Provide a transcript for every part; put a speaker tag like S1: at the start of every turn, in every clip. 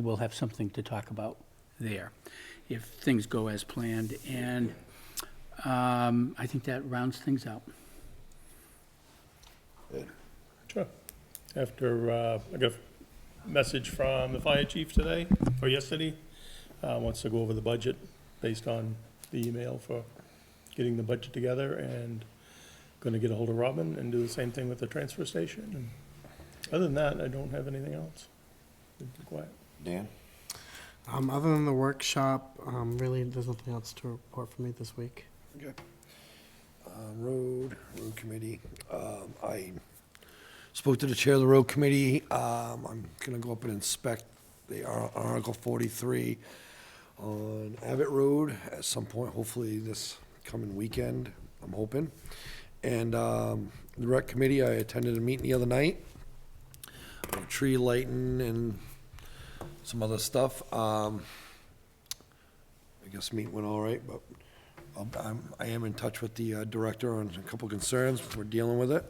S1: we'll have something to talk about there, if things go as planned. And um, I think that rounds things out.
S2: Sure. After, uh, I got a message from the fire chief today, or yesterday, uh, wants to go over the budget based on the email for getting the budget together and gonna get a hold of Robin and do the same thing with the transfer station. And Other than that, I don't have anything else. Been Quiet.
S3: Dan?
S4: Um, other than the workshop, um, really, there's nothing else to report for me this week.
S3: Um, Road, road committee. Um, I spoke to the chair of the road committee. Um, I'm gonna go up and inspect the Ar- Article forty-three on Abbott Road at some point, hopefully this coming weekend, I'm hoping. And, um, the rec committee, I attended a meeting the other night. on Tree lighting and some other stuff. Um, I guess meet went all right, but um, I'm, I am in touch with the uh, director on a couple concerns, we're dealing with it.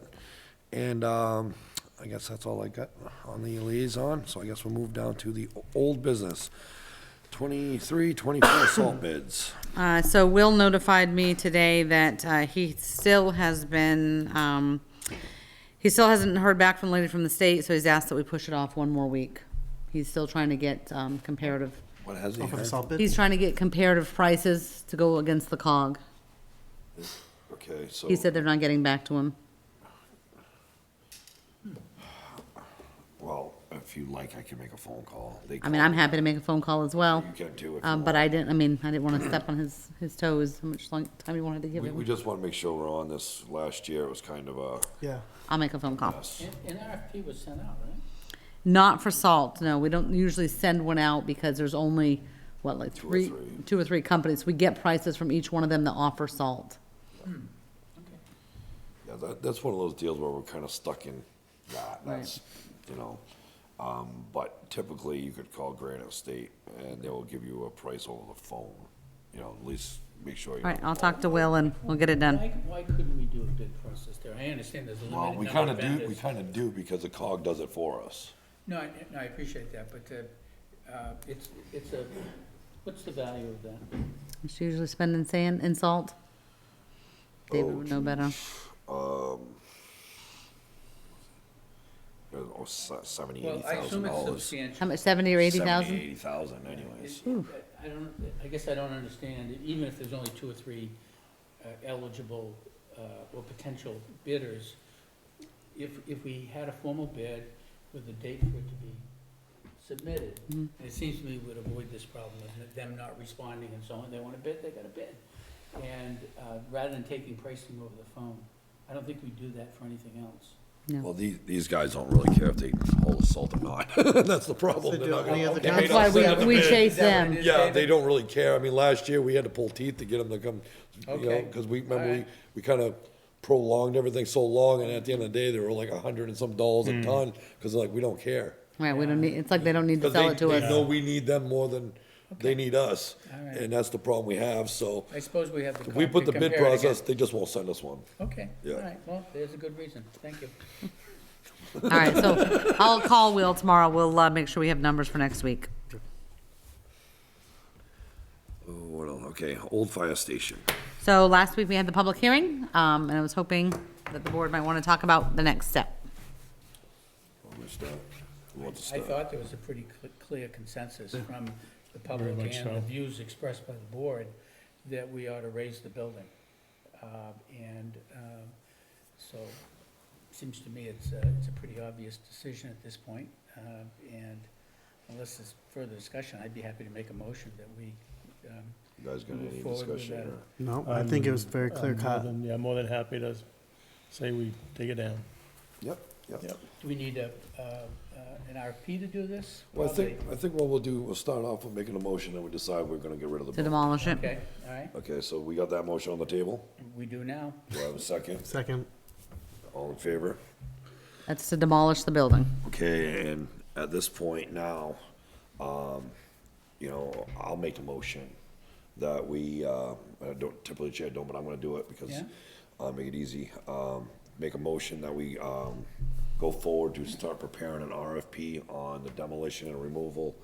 S3: And um, I guess that's all I got on the liaison, so I guess we'll move down to the o- old business. Twenty-three, twenty-four salt bids.
S5: Uh, so Will notified me today that, uh, he still has been, um, he still hasn't heard back from the lady from the state, so he's asked that we push it off one more week. He's still trying to get, um, comparative,
S3: What has he
S4: Oh, for the
S3: heard?
S4: salt bid?
S5: he's trying to get comparative prices to go against the cog.
S3: Okay, so.
S5: He said they're not getting back to him.
S3: Well, if you like, I can make a phone call. They
S5: I mean,
S3: call-
S5: I'm happy to make a phone call as well.
S3: You can too if you
S5: Um, but
S3: want.
S5: I didn't, I mean, I didn't wanna step on his, his toes, how much long, time you wanted to give
S6: We, we
S5: him.
S6: just want to make sure we're on this. Last year, it was kind of a
S4: Yeah.
S5: I'll make a phone call.
S6: mess.
S1: An RFP was sent out, right?
S5: Not for salt, no. We don't usually send one out because there's only, what, like three, two or three,
S6: three.
S5: companies. We get prices from each one of them that offer salt.
S6: Yeah, that, that's one of those deals where we're kind of stuck in that. That's, you know, um, but typically you could call Granite State and they will give you a price over the phone. You know, at least make sure. you
S5: All right,
S6: know
S5: I'll
S6: the
S5: talk to
S6: phone.
S5: Will and we'll get it done.
S1: Why, why couldn't we do a bid process there? I understand there's a
S6: Well, we
S1: limited
S6: kind
S1: number
S6: of
S1: of
S6: do. We
S1: vendors.
S6: kind of do because the cog does it for us.
S1: No, I, no, I appreciate that, but, uh, uh, it's, it's a, what's the value of that?
S5: It's usually spend in sand and salt. David would know better.
S6: Um, It was oh, se- seventy,
S1: Well,
S6: eighty
S1: I assume it's
S6: thousand dollars.
S5: How
S1: substantial.
S5: much, seventy or eighty thousand?
S6: Eighty thousand anyways.
S1: uh, I don't, I guess I don't understand, even if there's only two or three uh, eligible uh, or potential bidders, if, if we had a formal bid with a date for it to be submitted, it seems to me we'd avoid this problem of them not responding and so on, they want to bid, they got to bid. And uh, rather than taking pricing over the phone, I don't think we do that for anything else.
S5: No.
S6: Well, these, these guys don't really care if they hold assault or not. That's the problem.
S4: They
S6: They're not
S4: do it any
S6: gonna-
S4: other
S6: they
S4: time.
S6: may
S5: That's
S6: not
S5: why
S6: send
S5: we,
S6: them
S5: we
S6: in.
S5: chase
S1: Is that what
S5: them.
S1: it is,
S6: Yeah,
S1: David?
S6: they don't really care. I mean, last year, we had to pull teeth to get them to come, you know,
S1: Okay.
S6: because we, remember, we,
S1: Alright.
S6: we kind of prolonged everything so long, and at the end of the day, they were like a hundred and some dollars
S1: Hmm.
S6: a ton, because like, we don't care.
S5: Right, we don't need, it's like they don't need to
S6: Because
S5: sell
S6: they,
S5: it to
S6: they know
S5: us.
S6: we need them more than they need us,
S1: Alright.
S6: and that's the problem we have, so
S1: I suppose we have the.
S6: if we
S1: cop
S6: put
S1: to
S6: the bid
S1: compare it against.
S6: process, they just won't send us one.
S1: Okay, all
S6: Yeah.
S1: right, well, there's a good reason, thank you.
S5: All right, so I'll call Will tomorrow. We'll, uh, make sure we have numbers for next week.
S6: Oh, what else? Okay, old fire station.
S5: So last week we had the public hearing, um, and I was hoping that the board might want to talk about the next step.
S6: Who wants to start? Who wants to
S1: I
S6: start?
S1: thought there was a pretty cl- clear consensus from the public
S2: much
S1: and the
S2: so.
S1: views expressed by the board that we ought to raise the building. Uh, And um, so, seems to me it's, a- it's a pretty obvious decision at this point. Uh, And unless there's further discussion, I'd be happy to make a motion that we, um,
S6: You guys got
S1: Move
S6: any
S1: forward with
S6: discussion
S1: that.
S6: or?
S4: No, I think it was
S2: I'm-
S4: very
S2: I'm
S4: clear
S2: more
S4: cut.
S2: than- Yeah, more than happy to say we take it down.
S6: Yep,
S2: Yep.
S6: yep.
S1: do we need a, uh, uh, an RFP to do this?
S6: Well, I think,
S1: Probably.
S6: I think what we'll do, we'll start off with making a motion, and we decide we're gonna get rid of the
S5: to
S6: building.
S5: demolish it.
S1: Okay, all right,
S6: Okay, so we got that motion on the table.
S1: we do now.
S6: Do I have a second?
S4: Second,
S6: All in favor?
S5: That's to demolish the building.
S6: Okay, and at this point now, um, you know, I'll make a motion that we, uh, I don't typically chair, don't, but I'm gonna do it because
S1: Yeah.
S6: I'll make it easy. Um, make a motion that we, um, go forward to start preparing an RFP on the demolition and removal